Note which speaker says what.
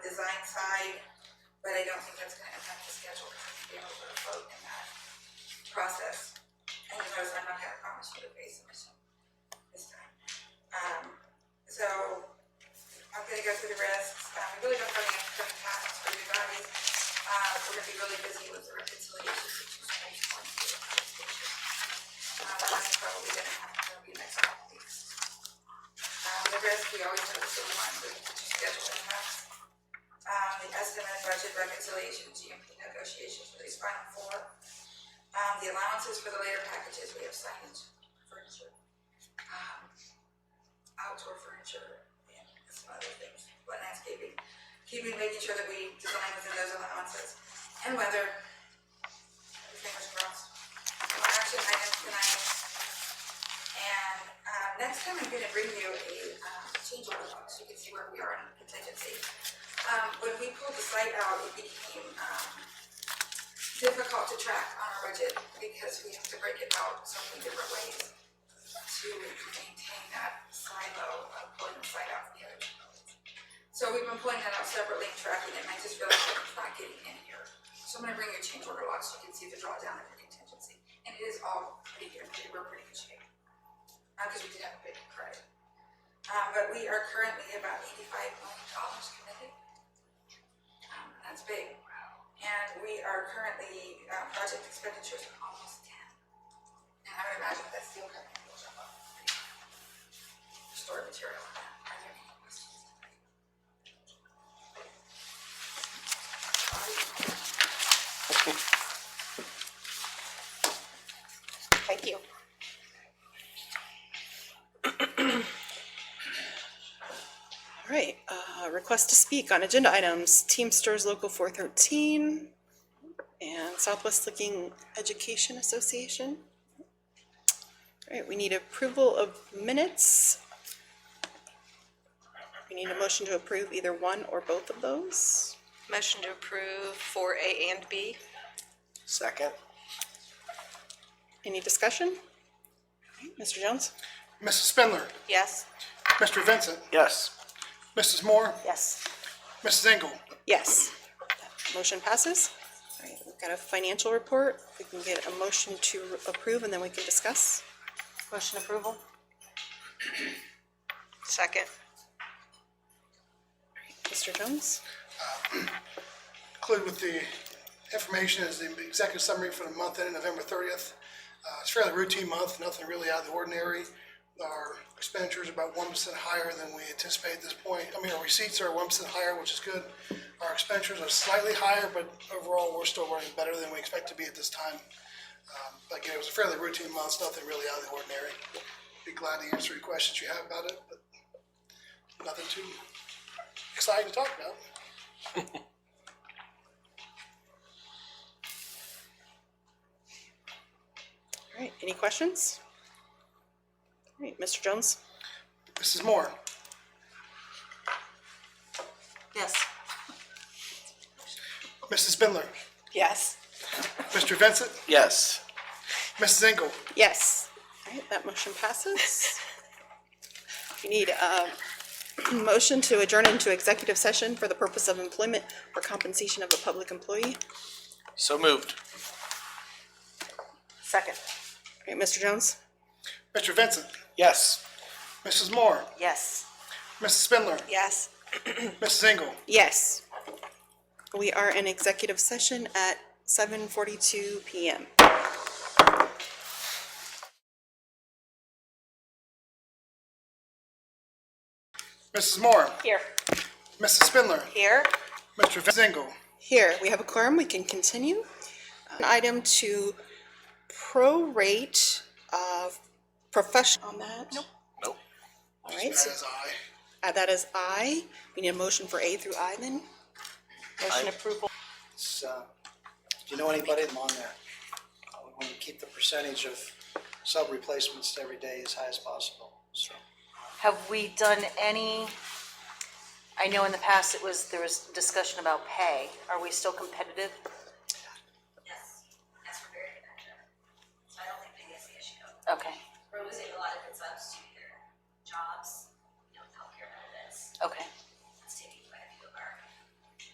Speaker 1: side, but I don't think that's gonna impact the schedule, because we'll be able to vote in that process. And you notice I'm not gonna promise you a base submission this time. Um, so, I'm gonna go through the risks, um, we really don't have any upcoming tasks for you guys. Uh, we're gonna be really busy with the reconciliation situation. Um, that's probably gonna happen, that'll be next couple weeks. Um, the risk, we always have the same one, with schedule impacts. Um, the estimate of budget reconciliation, GMP negotiations for these final four. Um, the allowances for the later packages, we have signage, furniture, um, outdoor furniture, and some other things, but landscaping. Keeping, making sure that we design within those allowances, and whether, fingers crossed. Our action items tonight, and, uh, next time I'm gonna bring you a, um, change order book, so you can see where we are in contingency. Um, when we pulled the site out, it became, um, difficult to track on our budget, because we have to break it out so many different ways to maintain that silo of pulling the site out from the other buildings. So we've been pulling that out separately and tracking it, and I just realized that it's not getting in here. So I'm gonna bring your change order log so you can see the drawdown of your contingency, and it is all pretty good, we're pretty good shape. Uh, cause we did have a big credit. Um, but we are currently about eighty-five million dollars committed. Um, that's big. And we are currently, uh, project expenditures are almost ten. And I would imagine that steel company will jump up. pretty high. Stored material on that, are there any questions?
Speaker 2: Thank you. All right, uh, request to speak on agenda items, Teamsters Local four thirteen and Southwest Licking Education Association. All right, we need approval of minutes. We need a motion to approve either one or both of those.
Speaker 3: Motion to approve for A and B.
Speaker 4: Second.
Speaker 2: Any discussion? Mr. Jones?
Speaker 5: Mrs. Spindler,
Speaker 3: Yes.
Speaker 5: Mr. Vincent,
Speaker 4: Yes.
Speaker 5: Mrs. Moore,
Speaker 2: Yes.
Speaker 5: Mrs. Engel.
Speaker 2: Yes. Motion passes. All right, we've got a financial report. We can get a motion to approve and then we can discuss.
Speaker 3: Motion approval. Second.
Speaker 2: Mr. Jones?
Speaker 5: Included with the information is the executive summary for the month ending November thirtieth. Uh, it's fairly routine month, nothing really out of the ordinary. Our expenditures are about one percent higher than we anticipated at this point. I mean, our receipts are one percent higher, which is good. Our expenditures are slightly higher, but overall, we're still running better than we expect to be at this time. Um, but Again, it was a fairly routine month, nothing really out of the ordinary. Be glad to answer any questions you have about it, but nothing too exciting to talk about.
Speaker 2: All right, any questions? All right, Mr. Jones?
Speaker 5: Mrs. Moore,
Speaker 3: Yes.
Speaker 5: Mrs. Spindler,
Speaker 2: Yes.
Speaker 5: Mr. Vincent,
Speaker 4: Yes.
Speaker 5: Mrs. Engel,
Speaker 2: Yes. All right, that motion passes. We need a motion to adjourn into executive session for the purpose of employment or compensation of a public employee.
Speaker 4: So moved.
Speaker 3: Second.
Speaker 2: All right, Mr. Jones?
Speaker 5: Mr. Vincent,
Speaker 4: Yes.
Speaker 5: Mrs. Moore,
Speaker 3: Yes.
Speaker 5: Mrs. Spindler,
Speaker 3: Yes.
Speaker 5: Mrs. Engel.
Speaker 2: Yes. We are in executive session at seven forty-two PM.
Speaker 5: Mrs. Moore,
Speaker 3: Here.
Speaker 5: Mrs. Spindler,
Speaker 3: Here.
Speaker 5: Mr. Vincent Engel.
Speaker 2: Here, we have a quorum, we can continue. An item to prorate of professional on that. Nope.
Speaker 4: Nope.
Speaker 2: All right,
Speaker 5: That
Speaker 2: so
Speaker 5: is I.
Speaker 2: uh, that is I. We need a motion for A through I then.
Speaker 3: Motion approval.
Speaker 6: So, do uh, you know anybody along there? Uh, We want to keep the percentage of sub replacements every day as high as possible, so.
Speaker 7: Have we done any, I know in the past it was, there was discussion about pay. Are we still competitive?
Speaker 1: Yes, yes, we're very competitive. So I don't think they see the issue.
Speaker 7: Okay.